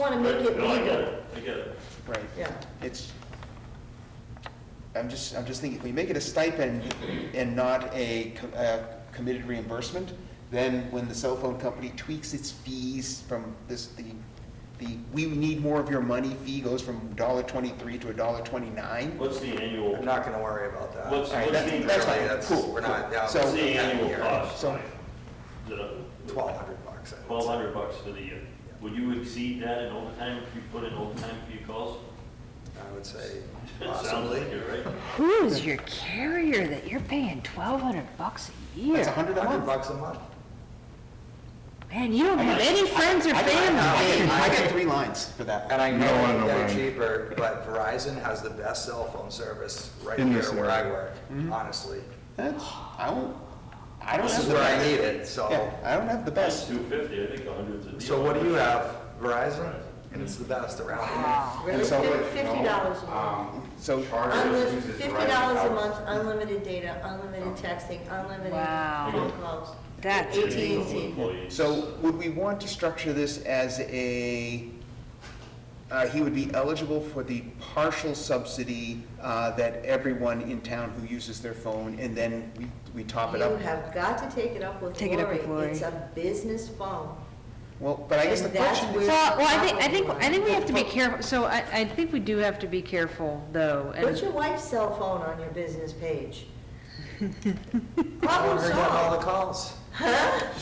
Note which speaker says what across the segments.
Speaker 1: want to make it
Speaker 2: No, I get
Speaker 1: legal.
Speaker 2: it, I get it.
Speaker 3: Right.
Speaker 1: Yeah.
Speaker 3: It's, I'm just, I'm just thinking, if we make it a stipend and not a co- uh, committed reimbursement, then when the cell phone company tweaks its fees from this, the, the, we need more of your money fee goes from dollar twenty-three to a dollar twenty-nine.
Speaker 2: What's the annual,
Speaker 4: I'm not gonna worry about that.
Speaker 2: What's-
Speaker 3: All right,
Speaker 2: what's the-
Speaker 3: that- that's
Speaker 4: Really,
Speaker 3: fine, cool.
Speaker 4: We're not, yeah.
Speaker 3: So-
Speaker 2: what's the annual cost?
Speaker 3: So-
Speaker 4: Twelve hundred bucks. I would
Speaker 2: Twelve
Speaker 4: say.
Speaker 2: hundred bucks for the year. Would you exceed that in overtime if you put in overtime for your calls?
Speaker 4: I would say
Speaker 2: It sounds
Speaker 4: possibly.
Speaker 2: like it, right?
Speaker 5: Who is your carrier that you're paying twelve hundred bucks a
Speaker 3: That's a
Speaker 5: year?
Speaker 3: hundred a
Speaker 4: Hundred
Speaker 3: month.
Speaker 4: bucks a month.
Speaker 5: Man, you don't have any friends or
Speaker 3: I get- I
Speaker 5: family.
Speaker 3: get three lines for that one.
Speaker 4: And I
Speaker 6: You don't wanna
Speaker 4: know
Speaker 6: know
Speaker 4: they're
Speaker 6: mine.
Speaker 4: cheaper, but Verizon has the best cell phone service right
Speaker 6: In
Speaker 4: here
Speaker 6: this
Speaker 4: where I
Speaker 6: area.
Speaker 4: work, honestly.
Speaker 3: That's, I don't, Mm-hmm. I don't
Speaker 4: This
Speaker 3: have
Speaker 4: is
Speaker 3: the
Speaker 4: where I
Speaker 3: best.
Speaker 4: need it, so.
Speaker 3: Yeah, I don't have the
Speaker 2: That's
Speaker 3: best.
Speaker 2: two fifty, I think a hundred's a deal.
Speaker 4: So what do you have? Verizon? And it's the best around here.
Speaker 3: And so-
Speaker 1: Fifty dollars a month.
Speaker 3: um, So,
Speaker 1: Unlimited, fifty dollars a month, unlimited data, unlimited
Speaker 3: Oh.
Speaker 1: texting, unlimited
Speaker 5: Wow.
Speaker 1: phone calls.
Speaker 5: That's
Speaker 1: at
Speaker 2: It's
Speaker 1: and
Speaker 2: a deal with
Speaker 1: t
Speaker 2: employees.
Speaker 3: So would we want to structure this as a, uh, he would be eligible for the partial subsidy uh, that everyone in town who uses their phone, and then we we top it
Speaker 1: You
Speaker 3: up?
Speaker 1: have got to take it up with
Speaker 5: Take it up with
Speaker 1: Lori. It's
Speaker 5: Lori.
Speaker 1: a business phone.
Speaker 3: Well, but I guess the
Speaker 1: And that's
Speaker 3: question
Speaker 5: So,
Speaker 3: is,
Speaker 1: where-
Speaker 5: well, I think, I think, I think we have to be careful, so I, I think we do have to be careful, though. and-
Speaker 1: Put your wife's cell phone on your business page.
Speaker 4: I
Speaker 1: Problem
Speaker 4: want her getting all
Speaker 1: solved.
Speaker 4: the calls.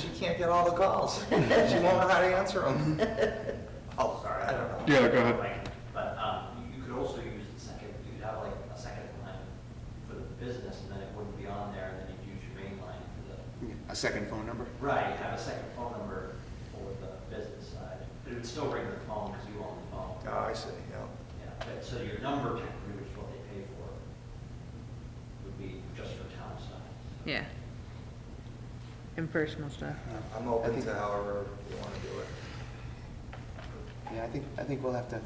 Speaker 4: She can't get all the calls. She won't know how to answer them. Oh, sorry, I don't know.
Speaker 6: Yeah, go ahead.
Speaker 7: But um, you could also use the second, you could have like a second line for the business, and then it wouldn't be on there, and then you'd use your main line for the,
Speaker 3: a second phone number?
Speaker 7: right, have a second phone number for the business side. But it would still ring the phone, because you own the phone.
Speaker 4: Oh, I see, yeah.
Speaker 7: Yeah, but, so your number can pretty much what they pay for, would be just for town side.
Speaker 5: Yeah. And personal stuff.
Speaker 4: Uh, I'm open to however you want to do it.
Speaker 3: Yeah, I think, I think we'll have to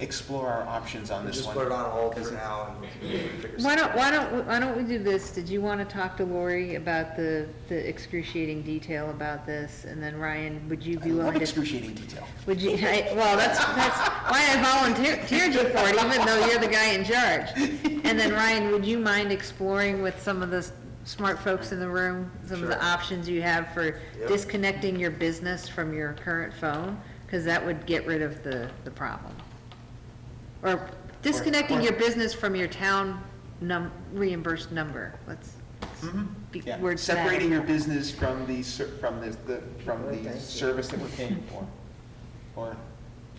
Speaker 3: explore our options on
Speaker 4: We
Speaker 3: this
Speaker 4: just
Speaker 3: one.
Speaker 4: put it on hold
Speaker 3: Because
Speaker 4: for
Speaker 3: it-
Speaker 4: now and we can figure something
Speaker 5: Why
Speaker 4: out.
Speaker 5: don't, why don't, we- why don't we do this? Did you want to talk to Lori about the, the excruciating detail about this? And then Ryan, would you
Speaker 3: I
Speaker 5: be
Speaker 3: love
Speaker 5: willing to?
Speaker 3: excruciating detail.
Speaker 5: Would you, I, well, that's, that's why I volunteered you for it, even though you're the guy in charge. And then Ryan, would you mind exploring with some of the s- smart folks in the room, some of the
Speaker 4: Sure.
Speaker 5: options you have for
Speaker 4: Yep.
Speaker 5: disconnecting your business from your current phone? Because that would get rid of the, the problem. Or disconnecting your business from your town num, reimbursed number, let's, be
Speaker 3: Yeah,
Speaker 5: word salad.
Speaker 3: Separating your business from the, ser- from the, the- from
Speaker 1: Right, thank
Speaker 3: the
Speaker 1: you.
Speaker 3: service that we're paying for, or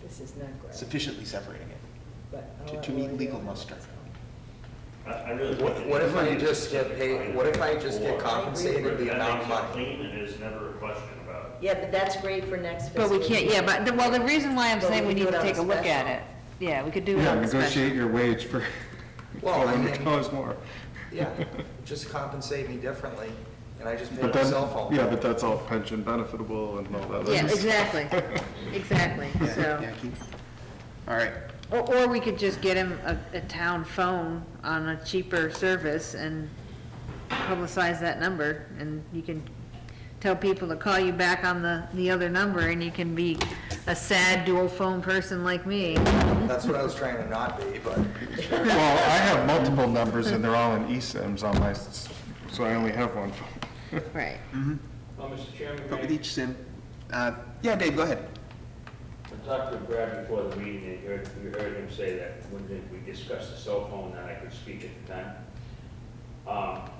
Speaker 1: This is not great,
Speaker 3: sufficiently separating it
Speaker 1: but. I'll
Speaker 3: to-
Speaker 1: let
Speaker 3: to meet
Speaker 1: Lori
Speaker 3: legal
Speaker 1: know.
Speaker 3: muster.
Speaker 2: I, I really.
Speaker 4: What-
Speaker 2: think
Speaker 4: what if I
Speaker 2: it's
Speaker 4: just get paid- what if I just get
Speaker 2: Or-
Speaker 4: compensated the
Speaker 2: That
Speaker 4: amount
Speaker 2: makes it
Speaker 4: of money?
Speaker 2: Clean and there's never a question about it.
Speaker 1: Yeah, but that's great for next fiscal.
Speaker 5: But we can't, yeah,
Speaker 1: year.
Speaker 5: but, the- well, the reason why I'm
Speaker 1: But we
Speaker 5: saying we
Speaker 1: could do
Speaker 5: need to
Speaker 1: it on a
Speaker 5: take a look at
Speaker 1: special.
Speaker 5: it, yeah, we could do it
Speaker 6: Yeah,
Speaker 5: on a special.
Speaker 6: negotiate your wage for
Speaker 4: Well, I mean-
Speaker 6: $1,200 more.
Speaker 4: Oh, Yeah, just compensate me differently and I just pay
Speaker 6: But
Speaker 4: my
Speaker 6: then,
Speaker 4: cell phone.
Speaker 6: yeah, but that's all pension benefitable and all that.
Speaker 5: Yeah,
Speaker 6: That's-
Speaker 5: exactly, exactly,
Speaker 3: Yeah,
Speaker 5: so,
Speaker 3: yeah, keep- All right,
Speaker 5: or, or we could just get him a, a town phone on a cheaper service and publicize that number, and you can tell people to call you back on the, the other number, and you can be a sad dual phone person like me.
Speaker 4: That's what I was trying to not be, but
Speaker 6: Well, I have multiple numbers and they're all in eSIMs on my, s- so I only have one phone.
Speaker 5: Right,
Speaker 8: Well, Mr. Chairman,
Speaker 3: but with
Speaker 8: may
Speaker 3: each sim, uh, yeah, Dave, go ahead.
Speaker 8: I talked to Brad before the meeting, and heard, we heard him say that when did we discussed the cell phone, that I could speak at the time. Um,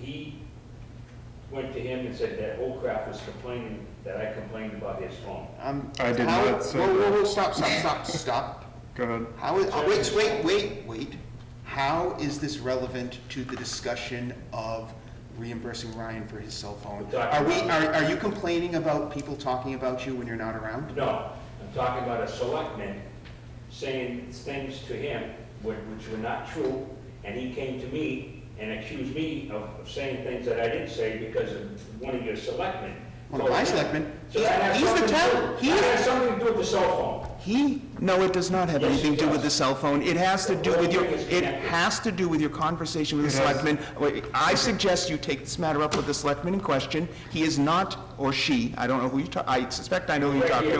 Speaker 8: He went to him and said that Holcraft was complaining, that I complained about his phone.
Speaker 3: Um,
Speaker 6: I did
Speaker 3: how-
Speaker 6: not say
Speaker 3: Whoa, whoa,
Speaker 6: that.
Speaker 3: whoa, stop, stop, stop, stop.
Speaker 6: Go ahead.
Speaker 3: How is, oh, wait, wait, wait, wait. How is this relevant to the discussion of reimbursing Ryan for his cell phone?
Speaker 8: We're talking
Speaker 3: Are we,
Speaker 8: about-
Speaker 3: are, are you complaining about people talking about you when you're not around?
Speaker 8: No, I'm talking about a selectman saying things to him whi- which were not true, and he came to me and accused me of of saying things that I didn't say because of one of your selectmen.
Speaker 3: One of my selectmen?
Speaker 8: So that has
Speaker 3: He's the
Speaker 8: something to
Speaker 3: town-
Speaker 8: do-
Speaker 3: he
Speaker 8: That
Speaker 3: is-
Speaker 8: has something to do with the cell phone.
Speaker 3: He, no, it does not have
Speaker 8: Yes,
Speaker 3: anything to do
Speaker 8: it
Speaker 3: with the
Speaker 8: does.
Speaker 3: cell phone. It has to do with your,
Speaker 8: Everything is
Speaker 3: it
Speaker 8: connected.
Speaker 3: has to do with your conversation with the
Speaker 6: It has-
Speaker 3: selectman. Wait, I suggest you take this matter up with the selectman in question. He is not, or she, I don't know who you talk, I suspect I know who you
Speaker 8: Right
Speaker 3: talk
Speaker 8: here.
Speaker 3: to.